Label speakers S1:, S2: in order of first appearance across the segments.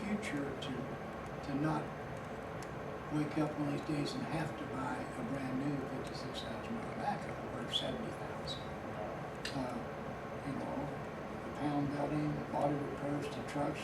S1: future to, to not wake up one of these days and have to buy a brand new fifty-six thousand dollar backhoe or seventy thousand. Uh, you know, the pound building, body repairs to trucks,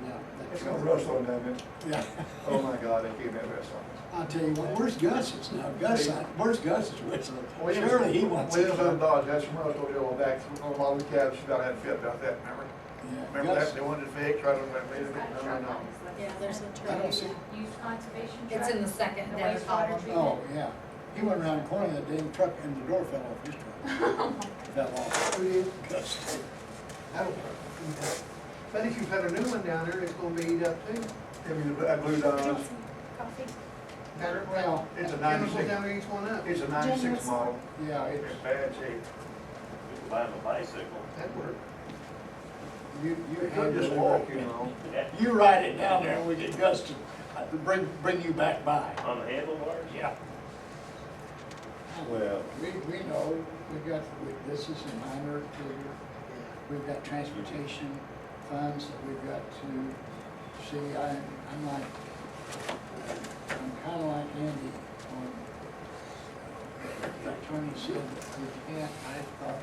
S1: now, that
S2: It's no
S1: truck.
S2: rust on that, man.
S1: Yeah,
S2: Oh my God, I gave that rust on this.
S1: I'll tell you what, where's Gus's now, Gus, I- where's Gus's whistling?
S2: Williams-
S1: Surely he wants. it.
S2: Williams on Dodge, that's from Russell Hill back, through a lot of the cabs, she about had a fit about that, remember?
S1: Yeah,
S2: Remember that,
S1: Gus,
S2: they wanted to fake, tried to make it,
S3: It's got a
S2: no, no,
S3: truck
S2: no.
S3: on his list.
S4: Yeah, there's a
S1: I
S4: truck.
S1: don't see,
S3: Used conservation truck.
S4: It's in the second,
S3: and
S4: down the
S3: wastewater
S4: column.
S3: treatment.
S1: oh, yeah, he went around the corner that day, and the truck, and the door fell off his truck. Fell off. Gus did.
S2: I don't- But if you put a new one down there, it's gonna be eat up too. I mean, I blew down,
S3: Johnson Coffee.
S1: Well,
S2: it's a
S5: Chemicals
S2: ninety-six,
S5: down to each one up.
S2: it's a ninety-six
S4: Generous.
S2: model,
S1: yeah, it's,
S2: it's bad shape,
S6: You can buy him a bicycle.
S5: That worked.
S1: you, you
S2: you could
S1: handle
S2: just
S1: it.
S2: walk, you know.
S6: Yeah,
S1: You write it down there and we get Gus to uh, bring, bring you back by.
S6: On the handlebars?
S1: Yeah.
S2: Well.
S1: We, we know, we got, we- this is a minor figure. We've got transportation funds that we've got to see. I, I'm like, I'm kinda like Andy on, like Tony said, we can't, I thought,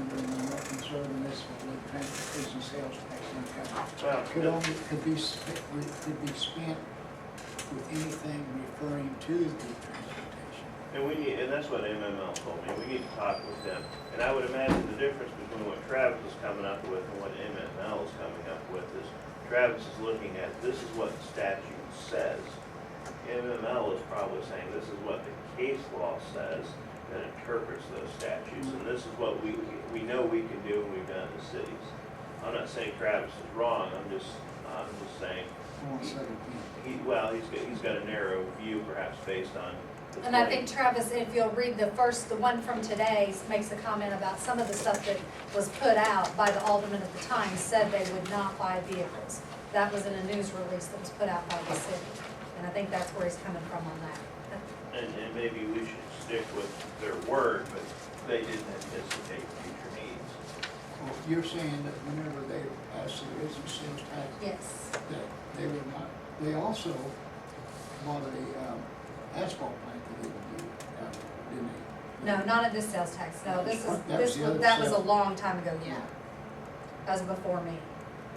S1: under the more conservative municipal league transportation sales tax income
S6: Well,
S1: could only, could be, sp- could be spent with anything referring to the transportation.
S6: And we need, and that's what MML told me, we need to talk with them. And I would imagine the difference between what Travis is coming up with and what MML is coming up with is Travis is looking at, this is what the statute says. MML is probably saying, this is what the case law says that interprets those statutes. And this is what we, we know we can do and we've done in the cities. I'm not saying Travis is wrong, I'm just, I'm just saying,
S1: I want to say it again.
S6: he, well, he's got, he's got a narrow view perhaps based on the
S4: And I
S6: 20
S4: think Travis, if you'll read the first, the one from today, makes a comment about some of the stuff that was put out by the alderman at the time, said they would not buy vehicles. That was in a news release that was put out by the city, and I think that's where he's coming from on that.
S6: And, and maybe we should stick with their word, but they didn't anticipate future needs.
S1: Well, you're saying that whenever they pass the business sales tax,
S4: Yes,
S1: that they would not, they also bought a um, asphalt plant that they would do, uh, didn't they?
S4: no, not at this sales tax, no, this is,
S1: That was
S4: this,
S1: the
S4: was
S1: other
S4: that was a
S1: sale.
S4: long time ago, yeah. That was before me.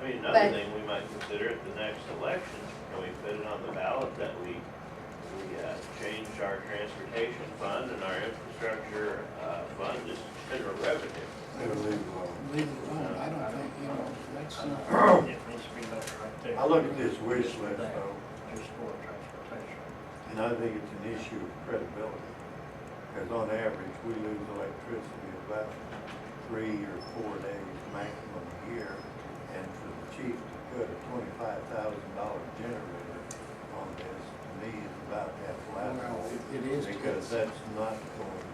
S6: I mean, another
S4: But-
S6: thing we might consider at the next election, can we put it on the ballot that we, we, uh, change our transportation fund and our infrastructure, uh, fund to general revenue?
S1: Leave it alone, I don't think, you know, that's not,
S7: It needs to be left right there.
S5: I look at this wish list though,
S7: Just for transportation.
S5: and I think it's an issue of credibility. Because on average, we lose electricity about three or four days maximum a year. And for the chief to put a twenty-five thousand dollar generator on this, to me, is about half
S1: well,
S5: laughable.
S1: it- it is,
S5: Because that's not going,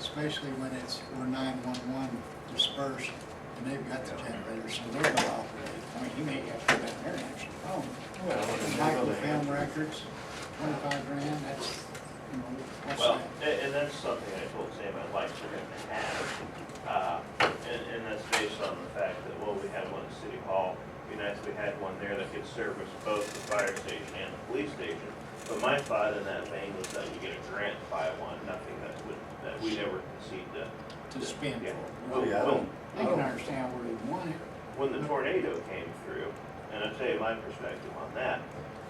S1: especially when it's, we're nine-one-one dispersed, and they've got the generator, so they're gonna operate. I mean, you may have to go down there and actually phone.
S5: well,
S1: Michael
S5: it's
S1: found
S5: another,
S1: records, twenty-five grand, that's, you know, what's
S6: Well,
S1: that?
S6: and, and that's something I told Sam I'd like for him to have, uh, and, and that's based on the fact that, well, we had one at City Hall. It'd be nice if we had one there that could service both the fire station and the police station. But my thought in that vein was that we get a grant to buy one, nothing that would, that we'd ever concede to.
S1: to spend
S6: Yeah.
S1: for.
S5: Oh, yeah, I don't-
S1: They can understand where they want it.
S6: When the tornado came through, and I'll tell you my perspective on that,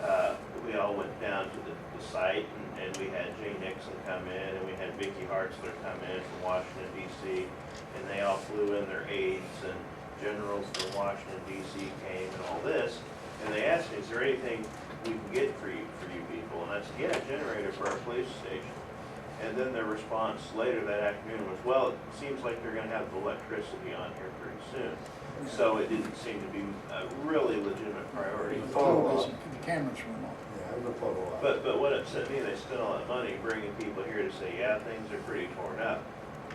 S6: uh, we all went down to the, the site and, and we had Jay Nixon come in and we had Vicky Hartzler come in from Washington DC. And they all flew in their aides and generals from Washington DC came and all this. And they asked me, is there anything we can get for you, for you people? And I said, yeah, a generator for our police station. And then their response later that afternoon was, well, it seems like they're gonna have electricity on here pretty soon. So it didn't seem to be a really legitimate priority.
S1: The
S5: Follow up.
S1: television, the cameras went off.
S5: yeah, it was a photo op.
S6: But, but what upset me, they spent all that money bringing people here to say, yeah, things are pretty torn up.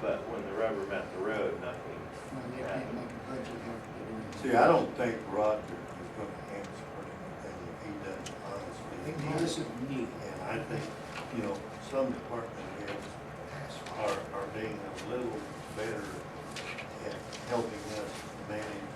S6: But when the rubber met the road, nothing.
S1: No, they can't make a budget
S5: See, I don't think Roger is gonna answer anything if he doesn't honestly.
S1: here. This is neat.
S5: And I think, you know, some department heads are, are being a little better at helping us manage